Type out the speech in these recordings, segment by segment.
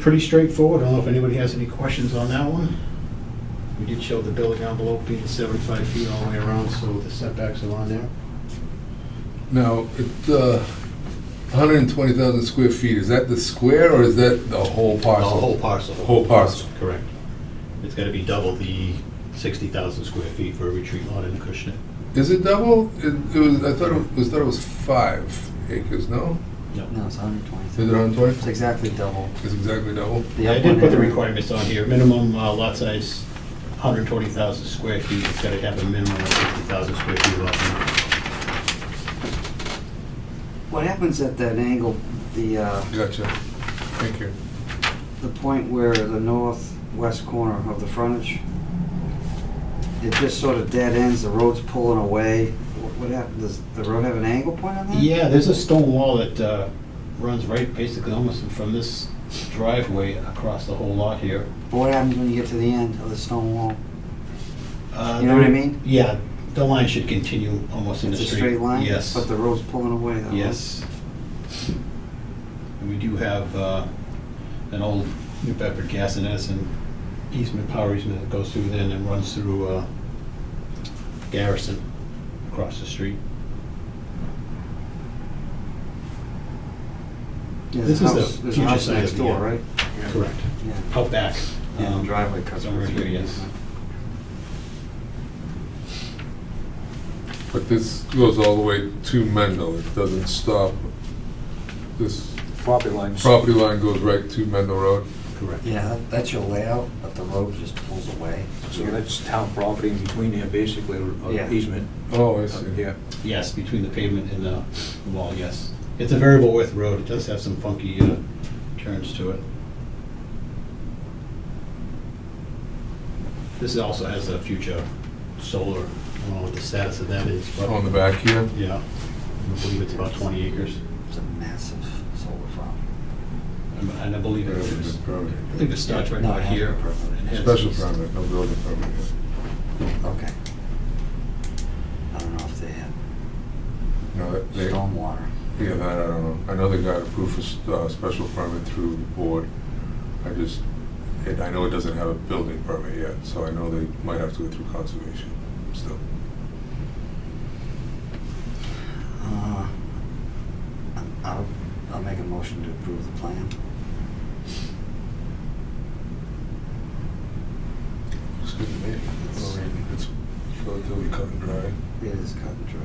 Pretty straightforward. I don't know if anybody has any questions on that one. We did show the building envelope being 75 feet all the way around, so the setbacks are on there. Now, it, uh, 120,000 square feet, is that the square or is that the whole The parcel? whole parcel. The whole parcel. Correct. It's got to be double the 60,000 square feet for a retreat lot in Acushnet. Is it double? It, it was, I thought it was, thought it was five acres, no? No, it's hundred Is it twenty. It's 120? exactly double. It's exactly double. The I up did one put the had- requirements on here. Minimum uh, lot size, 120,000 square feet. It's got to have a minimum of 60,000 square feet lot. What happens at that angle, the, uh, Gotcha. Thank you. the point where the northwest corner of the frontage, it just sort of dead ends, the road's pulling away. What- What happened, does the road have an angle point on that? Yeah, there's a stone wall that uh, runs right basically almost from this driveway across the whole lot here. But What happens when you get to the end of the stone wall? Uh, You know what I mean? Yeah, the line should continue almost in the It's a street. straight line? Yes, But the road's pulling away, though? yes. And we do have uh, an old New Bedford Gas and Edison easement, power easement that goes through there and then runs through uh, Garrison across the street. Yeah, This the is the house- There's a future house side of next the, door, uh, right? Correct. Yeah. Out back. Yeah, um, the driveway cuts. somewhere right here, through. yes. But this goes all the way to Mendel. It doesn't stop. This property lines. property line goes right to Mendel Road. Correct. Yeah, that- that's your layout, but the road just pulls away. So that's town property in between there, basically, or Yeah. or easement. Oh, I Uh, see. Yeah, Yes, between the pavement and the wall, yes. It's a variable width road, it does have some funky uh, turns to it. This also has a future solar, I don't know what the status of that is, On but, the back here. yeah, I believe it's about 20 acres, It's a massive solar farm. and and I believe it is, Permit. I think it starts right No, about it has here. no permit. and heads Special east. permit, no building permit. Okay. I don't know if they had No, that- they, stormwater. Yeah, that I don't know. I know they got approved for s- uh, special permit through the board. I just, it- I know it doesn't have a building permit yet, so I know they might have to go through conservation still. Uh, I'll, I'll make a motion to approve the plan. Excuse me. It's- It's relatively cut and dry. It is cut and dry.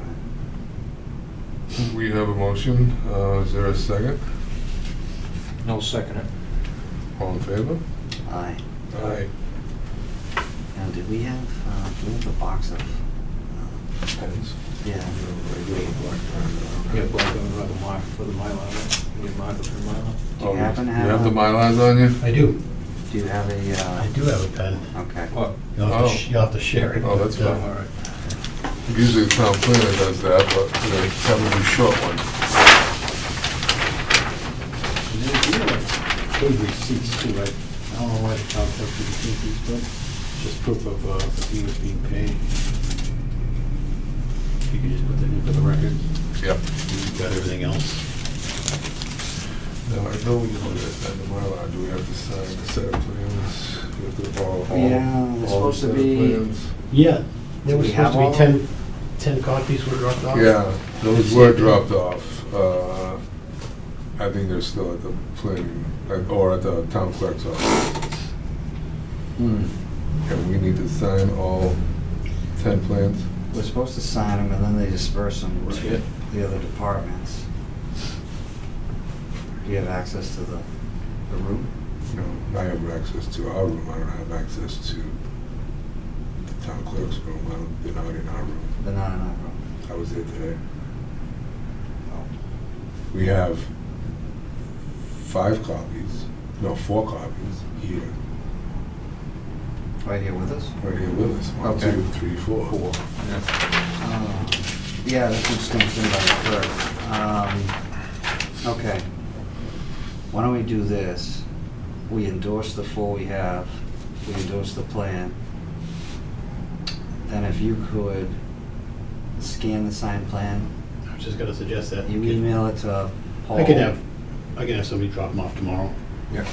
We have a motion. Uh, Is there a second? no second it. All in favor? Aye. Aye. Now, did we have, uh, do we have the box of, uh, Pens. yeah, Yeah, but I'm gonna write a mark for the Mylar, right? you need a marker for the Mylar. Do you happen to have You have the a- Mylars on you? I do, do you have a, I uh, do have a pen. okay. What? You'll have to Oh. sh- you'll have to share it. Oh, that's but, uh, fine. All right. Usually the town planner does that, but they have a short one. And then if you have Good receipts too, right? I don't know why the town clerk didn't keep these, but just proof of uh, the fee was being paid. If you could just put that in for the record, Yep. you've got everything else. No, I know we don't understand the Mylar, do we have to sign the set of plans? We have to follow all- Yeah, there's all the supposed set to of be- plans? Yeah, there Do was we have supposed to be all? 10, 10 copies were dropped off. Yeah, those were dropped off. Uh, I think they're still at the planning, at- or at the town clerk's office. Hmm. And we need to sign all 10 plans? We're supposed to sign them and then they disperse them to Right. the other departments. Do you have access to the, the room? No, I have access to our room, I don't have access to the town clerk's room. I don't, they're not in our room. They're not in our room. I was there today. Um, Oh. We have five copies, no, four copies here, Right here with us? right here with us. One, Okay. two, three, four. Four. Uh, Yeah, that's what stinks in by the clerk. Um, Okay. Why don't we do this? We endorse the four we have, we endorse the plan. Then if you could scan the signed plan, I was just gonna suggest that. you email it to Paul. I can have, I can have somebody drop them off tomorrow. Yeah.